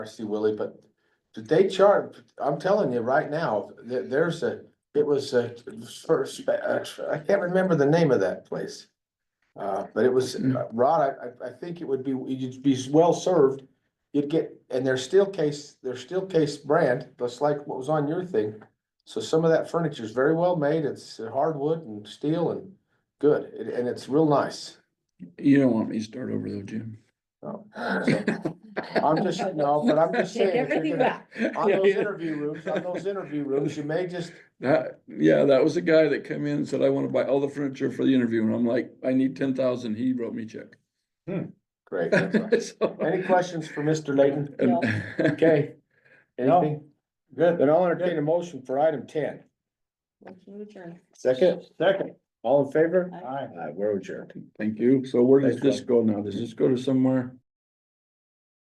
Marcy Willie, but did they charge, I'm telling you right now, there, there's a, it was a first, uh, I can't remember the name of that place. Uh, but it was, uh, Rod, I- I, I think it would be, you'd be well served. You'd get, and they're still case, they're still case brand, just like what was on your thing. So some of that furniture is very well made. It's hardwood and steel and good, and- and it's real nice. You don't want me to start over though, Jim. So, so, I'm just, no, but I'm just saying. Take if you're everything gonna- back. On Yeah, those yeah. interview rooms, on those interview rooms, you may just, That, yeah, that was a guy that came in and said, I wanna buy all the furniture for the interview, and I'm like, I need ten thousand, he wrote me a check. great. that's all. So- Any questions for Mr. Layton? And- Okay. No. Anything? Good. Then I'll entertain a motion for item ten. Motion to adjourn. Second? Second. All in favor? Aye. Aye, we're adjourned. Thank you, so where does Thanks, this go now? Does this go to somewhere?